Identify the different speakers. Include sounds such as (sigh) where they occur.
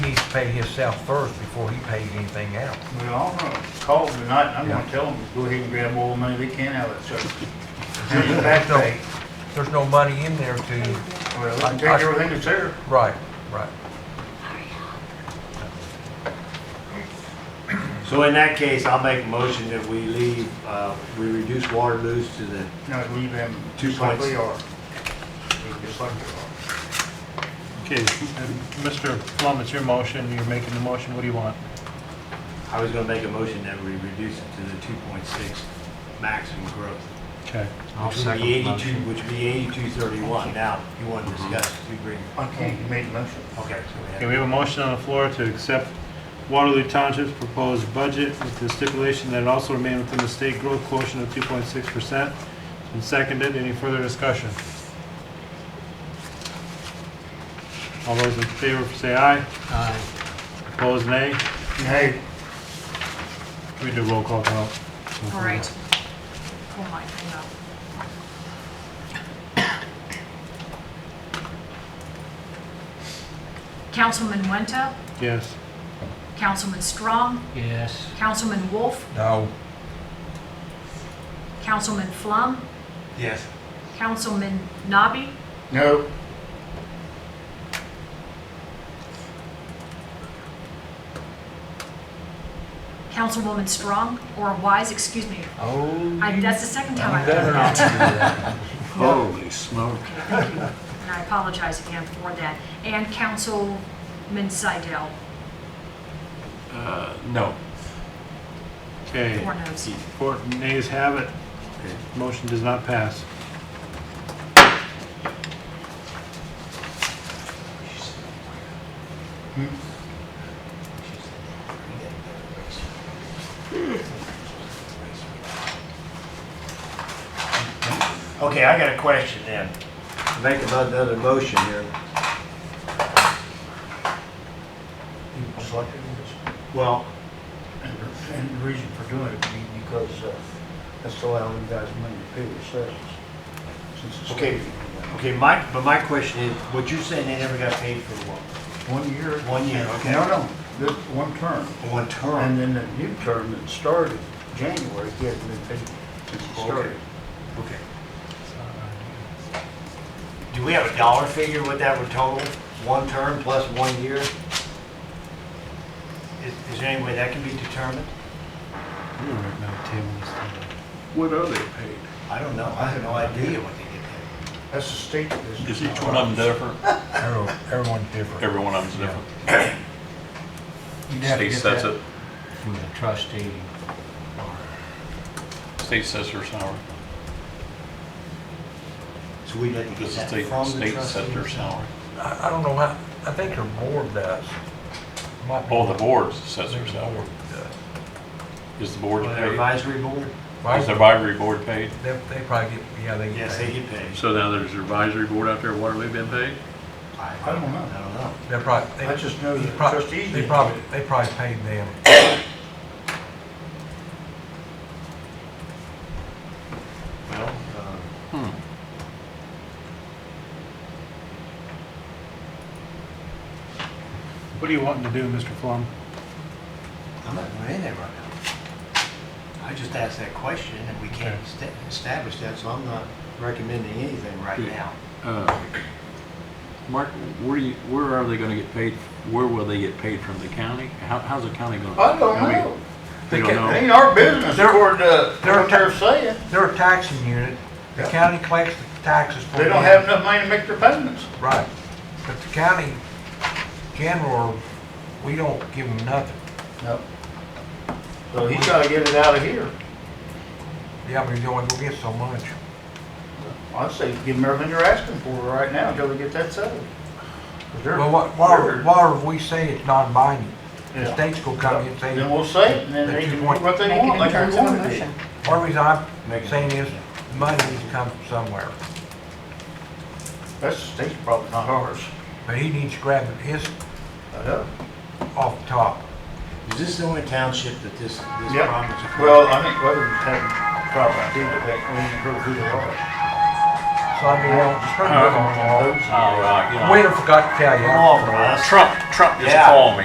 Speaker 1: pay himself first before he pays anything else.
Speaker 2: Well, I'm gonna call tonight, and I'm gonna tell them, to go ahead and grab all the money they can out of that
Speaker 3: (laughs)
Speaker 2: service. Send it back
Speaker 1: No.
Speaker 2: pay.
Speaker 1: There's no money in there to,
Speaker 2: Well, they can take everything that's there.
Speaker 1: right, right.
Speaker 3: So in that case, I'll make a motion that we leave, uh, we reduce water loose to the,
Speaker 2: No, leave them
Speaker 3: Two
Speaker 2: just like
Speaker 3: points.
Speaker 2: they are. Leave them Just like they are.
Speaker 4: Okay, and Mr. Plum, it's your motion, you're making the motion, what do you want?
Speaker 3: I was gonna make a motion that we reduce it to the two point six maximum growth.
Speaker 4: Okay.
Speaker 3: Which would be eighty-two, which would be eighty-two thirty-one. Now, you want to discuss, you bring,
Speaker 2: I can't, you made a motion.
Speaker 3: okay, so we have.
Speaker 4: Okay, we have a motion on the floor to accept Waterloo Township's proposed budget with the stipulation that it also remain within the state growth quotient of two point six percent. And seconded, any further discussion? All those in favor say aye. Aye. Opposed, nay.
Speaker 2: Hey,
Speaker 4: We do roll call vote.
Speaker 5: All right. Hold on, hang on. Councilman Wenta,
Speaker 4: Yes.
Speaker 5: Councilman Strong,
Speaker 6: Yes.
Speaker 5: Councilman Wolf,
Speaker 1: No,
Speaker 5: Councilman Flum,
Speaker 3: Yes.
Speaker 5: Councilman Nabi,
Speaker 2: no,
Speaker 5: Councilwoman Strong, or Wise, excuse me.
Speaker 3: Oh.
Speaker 5: I- That's the second time I've
Speaker 1: better
Speaker 5: done
Speaker 1: not
Speaker 5: that.
Speaker 6: Holy smoke.
Speaker 5: Okay, thank you. And I apologize again for that. And Councilman Seidel,
Speaker 6: Uh, no.
Speaker 4: Okay.
Speaker 5: four noes.
Speaker 4: Four nays have it. Motion does not pass.
Speaker 3: Okay, I got a question then. Make another motion here.
Speaker 2: you selected this.
Speaker 3: Well,
Speaker 2: And the- And the reason for doing it would be because uh, that's allowing you guys money to pay your services. Since it's-
Speaker 3: Okay. okay, my, but my question is, what you're saying they never got paid for one,
Speaker 2: One year.
Speaker 3: One year, okay.
Speaker 2: No, no, this one term.
Speaker 3: one
Speaker 2: And
Speaker 3: term?
Speaker 2: then the new term that started January, he hasn't been paid since it started.
Speaker 3: Okay. Do we have a dollar figure what that would total? One term plus one year? Is, is there any way that can be determined?
Speaker 4: We're right now tabling this thing.
Speaker 7: What are they paid?
Speaker 3: I don't know. I have no idea what they get paid.
Speaker 2: That's the state that
Speaker 7: Is
Speaker 2: is.
Speaker 7: each one of them different?
Speaker 1: everyone- everyone's different.
Speaker 7: Every one of them's different.
Speaker 2: You'd have to
Speaker 7: State
Speaker 2: get
Speaker 7: sets
Speaker 2: that.
Speaker 7: it,
Speaker 6: From the trustee.
Speaker 7: state sets their salary.
Speaker 3: So we'd have to get
Speaker 7: Does the
Speaker 3: that
Speaker 7: state,
Speaker 3: from the
Speaker 7: state set their
Speaker 3: trustees.
Speaker 7: salary?
Speaker 1: I, I don't know how, I think her board does. Might be-
Speaker 7: Oh, the board sets
Speaker 1: I
Speaker 7: their
Speaker 1: think the
Speaker 7: salary.
Speaker 1: board does.
Speaker 7: Is the board
Speaker 3: Or their
Speaker 7: paid?
Speaker 3: advisory board?
Speaker 7: Is the
Speaker 1: Right?
Speaker 7: advisory board paid?
Speaker 1: They, they probably get, yeah, they get
Speaker 3: Yes, they
Speaker 1: paid.
Speaker 3: get paid.
Speaker 7: So now there's advisory board out there, Waterloo been paid?
Speaker 3: I
Speaker 2: I don't know.
Speaker 3: I don't know.
Speaker 1: They're probably, they
Speaker 2: I just know
Speaker 1: they
Speaker 2: the
Speaker 1: prob-
Speaker 2: trustees.
Speaker 1: They
Speaker 2: did.
Speaker 1: probably, they probably paid them.
Speaker 3: Well, uh,
Speaker 7: Hmm.
Speaker 4: What are you wanting to do, Mr. Flum?
Speaker 3: uh, I'm not going in there right now. I just asked that question and we can't esta- establish that, so I'm not recommending anything right
Speaker 8: Yeah.
Speaker 3: now.
Speaker 8: Uh, Mark, where do you, where are they gonna get paid? Where will they get paid from the county? How, how's the county gonna?
Speaker 2: I don't
Speaker 8: I mean,
Speaker 2: know.
Speaker 8: They don't
Speaker 1: They get-
Speaker 2: It
Speaker 8: know.
Speaker 2: ain't our business,
Speaker 1: They're-
Speaker 2: according to
Speaker 1: they're-
Speaker 2: what uh, they're saying.
Speaker 1: They're a taxing unit. The
Speaker 2: Yeah.
Speaker 1: county collects the taxes for them.
Speaker 2: They don't have enough money to make their payments.
Speaker 1: Right. But the county general, we don't give them nothing.
Speaker 2: No. So he's gotta get it out of here.
Speaker 1: Yeah, but you only go get so much.
Speaker 2: I'd say give them everything they're asking for right now until we get that settled. 'Cause they're-
Speaker 1: Well, what, why,
Speaker 2: they're-
Speaker 1: why would we say it's non-binding? The
Speaker 2: Yeah.
Speaker 1: state's gonna come in and say,
Speaker 2: Then we'll say it, and then
Speaker 1: that
Speaker 2: they
Speaker 1: you
Speaker 2: can do
Speaker 1: want-
Speaker 2: what they want, like we want to do.
Speaker 1: one reason I'm
Speaker 3: Make it-
Speaker 1: saying is, money needs to come from somewhere.
Speaker 2: That's the state's problem, not ours.
Speaker 1: But he needs to grab his
Speaker 2: I know.
Speaker 1: off the top.
Speaker 3: Is this the only township that this, this problem
Speaker 2: Yep.
Speaker 3: is occurring?
Speaker 2: Well, uh, I think weather's having problems too, but that, we didn't know who they (laughs) are.
Speaker 1: So I mean, well,
Speaker 2: Those-
Speaker 8: Oh, right, you know.
Speaker 1: Winter forgot to tell you.
Speaker 3: Come on, Russ.
Speaker 7: Trump, Trump
Speaker 3: Yeah.
Speaker 7: called me.